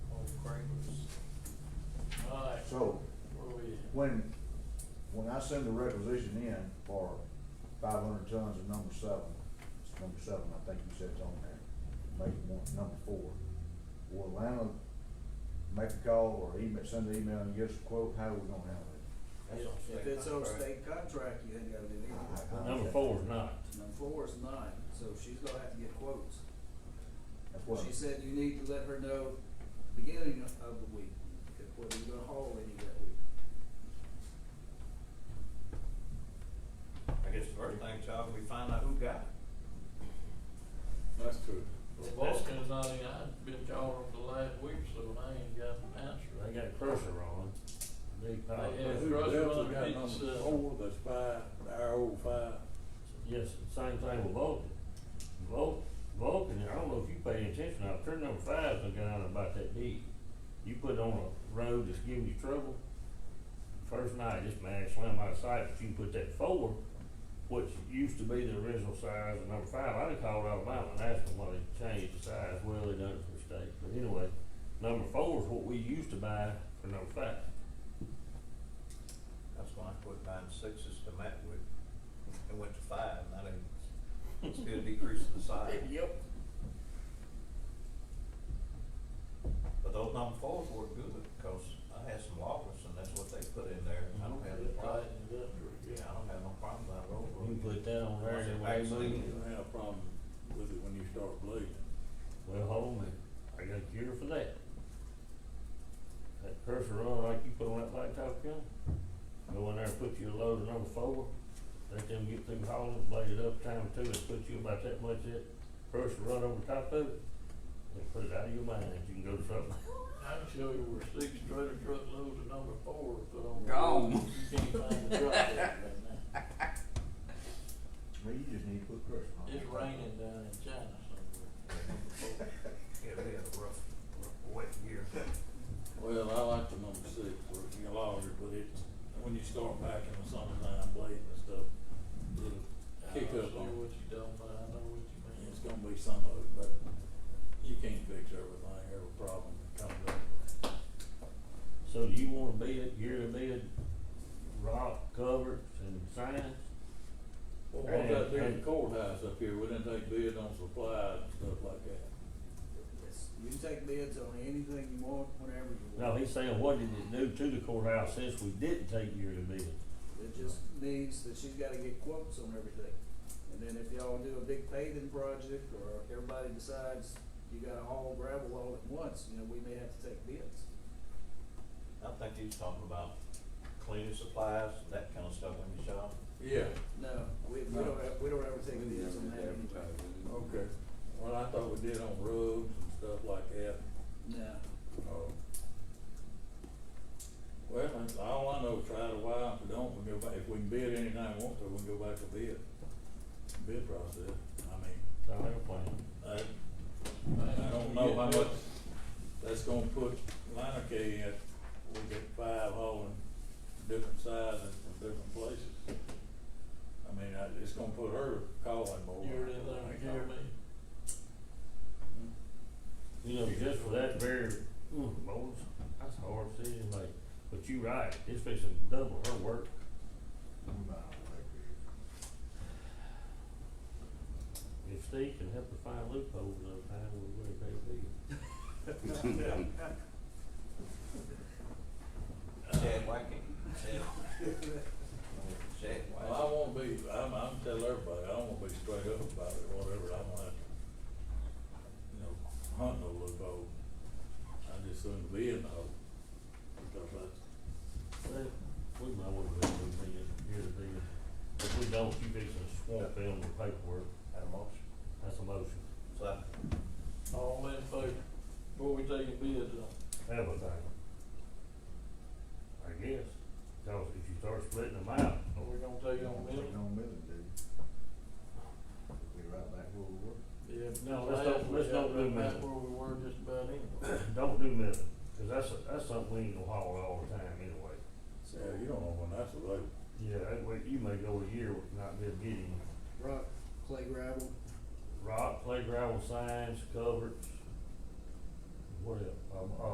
So, Where we at? when, when I send the requisition in for five hundred tons of number seven, it's number seven, I think you said it's on there, make one, number four. Will Atlanta make a call or email, send an email and give us a quote, how are we gonna handle it? That's on If state it's on contract. state contract, you ain't gotta do I- I- anything. Number four is not. Number four is nine, so she's gonna have to get quotes. That's what, She said you need to let her know beginning of the week, whether you're gonna haul any that week. I guess the first thing, Charles, we find out who got it. That's true. That's cause I, I've been calling them the last week, so I ain't got an answer. They got a crusher on. Big I power. had Who Russ else Run, got it's, number uh, Four, that's five, our old five. Yes, same thing with Vulcan. Vul- Vulcan, I don't know if you pay attention, now, turn number five's been down about that deep. You put it on a road that's giving you trouble, first night, this man slammed out of sight, but you put that four, which used to be the original size of number five, I done called Alabama and asked them why they changed the size, well, they done it for state, but anyway, number four is what we used to buy for number five. That's why I quit buying sixes to match with, and went to five, and I didn't, still decreasing the size. Yep. But those number fours were good, because I had some lockers, and that's what they put in there, I don't have any problem. Tightened it up. Yeah, I don't have no problem with that road. You can put that on there, Was it and wait a actually- minute. You don't have a problem with it when you start bleeding. Well, hold on, I got a cure for that. That cursor run like you put on that blacktop gun, go in there and put you a load of number four, let them get through hauling, blade it up time two, and put you about that much that cursor run over top of it, and put it out of your mind, you can go to something. I can show you where six trailer truckloads of number four are put on. the Gone. road. You can't find the truck there right now. well, you just need to put pressure on it. It's raining down in China somewhere. Yeah, they had a rough, rough wet year. Well, I like the number six, where you can log it, but it's, when you start back in the summertime bleeding and stuff, it'll kick I up see on, what you done, but I know what you mean. it's gonna be some of it, but you can't fix everything, every problem that comes up. So do you wanna bid, yearly bid, rock, covers, and signs? Well, what about And- doing and- the courthouse up here, we didn't take bid on supplies and stuff like that. It's- You can take bids on anything you want, whenever you No, want. he's saying, what did it do to the courthouse since we didn't take yearly bid? It just means that she's gotta get quotes on everything. And then if y'all do a big paving project, or everybody decides you gotta haul gravel all at once, you know, we may have to take bids. I think he was talking about cleaning supplies and that kind of stuff in the shop. Yeah, No, we, we don't have, we don't ever take bids on that anyway. okay. Well, I thought we did on rugs and stuff like that. No, Oh. Well, that's all I know, try it a while, if we don't, we go back, if we can bid anything we want to, we can go back to bid. Bid process, I mean, So I have a plan. I, Man, I don't know how much that's gonna put Lana K at, we get five hauling different sizes from different places. I mean, I, it's gonna put her calling more. You heard anything, Jeremy? You know, just for that very, ooh, Lord, that's a hard decision, like, but you right, it's fixing to double her work. We might not like it. If Steve can help to find loopholes up high, we're gonna pay a bill. Chad Wackey, Chad, Chad Wackey. Well, I won't be, I'm, I'm telling everybody, I won't be straight up about it, whatever, I'm gonna have to, you know, hunt no loophole. I just shouldn't be in the hole, because that's, Well, we might want to do a bill, here to bill. If we don't, you fixing to swamp them with paperwork, Had a motion. that's a motion. Second. All in favor, before we take a bid on. Everything. I guess, cause if you start splitting them out, Are we gonna take on Take Milton? on Midland, dude. We'll be right back where we were. Yeah, No, let's don't- let's don't do That's Milton. where we were just about anyway. don't do nothing, cause that's, that's something we ain't gonna haul all the time anyway. yeah, you don't know when that's available. Yeah, that way you may go a year with not be getting rock, clay gravel, rock, play gravel signs, covers, what else? Um, uh,